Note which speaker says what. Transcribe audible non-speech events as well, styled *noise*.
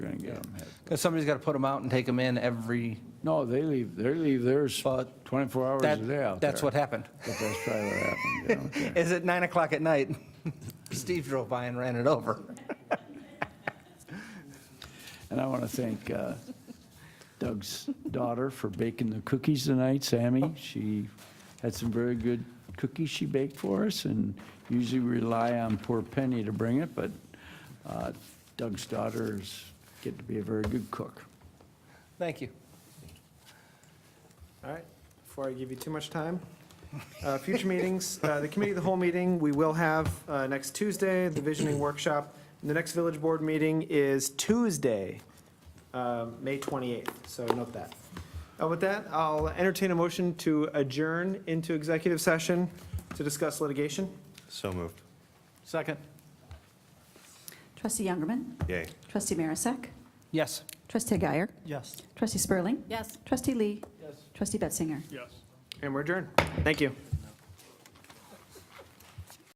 Speaker 1: You're going to get them.
Speaker 2: Because somebody's got to put them out and take them in every,
Speaker 3: No, they leave, they leave theirs
Speaker 2: But
Speaker 3: 24 hours a day
Speaker 2: that,
Speaker 3: out
Speaker 2: that's
Speaker 3: there.
Speaker 2: what happened.
Speaker 3: But that's probably what happened, yeah.
Speaker 2: *laughs* Is at 9 o'clock at night, *laughs* Steve drove by and ran it over.
Speaker 3: And I want to thank uh, Doug's daughter for baking the cookies tonight, Sammy. She had some very good cookies she baked for us, and usually we rely on poor Penny to bring it, but uh, Doug's daughters get to be a very good cook.
Speaker 2: Thank you.
Speaker 4: All right, before I give you too much time, uh, future meetings, uh, the committee, of the whole meeting, we will have uh, next Tuesday, the visioning workshop. And The next village board meeting is Tuesday, um, May 28th, so note that. Uh, With that, I'll entertain a motion to adjourn into executive session to discuss litigation.
Speaker 5: So moved.
Speaker 2: Second?
Speaker 6: Trustee Youngerman.
Speaker 5: Yay.
Speaker 6: Trustee Marisak.
Speaker 2: Yes.
Speaker 6: Trustee Guyer.
Speaker 2: Yes.
Speaker 6: Trustee Spurling.
Speaker 7: Yes.
Speaker 6: Trustee Lee. Yes. Trustee Betzinger.
Speaker 4: And we're adjourned. Thank you.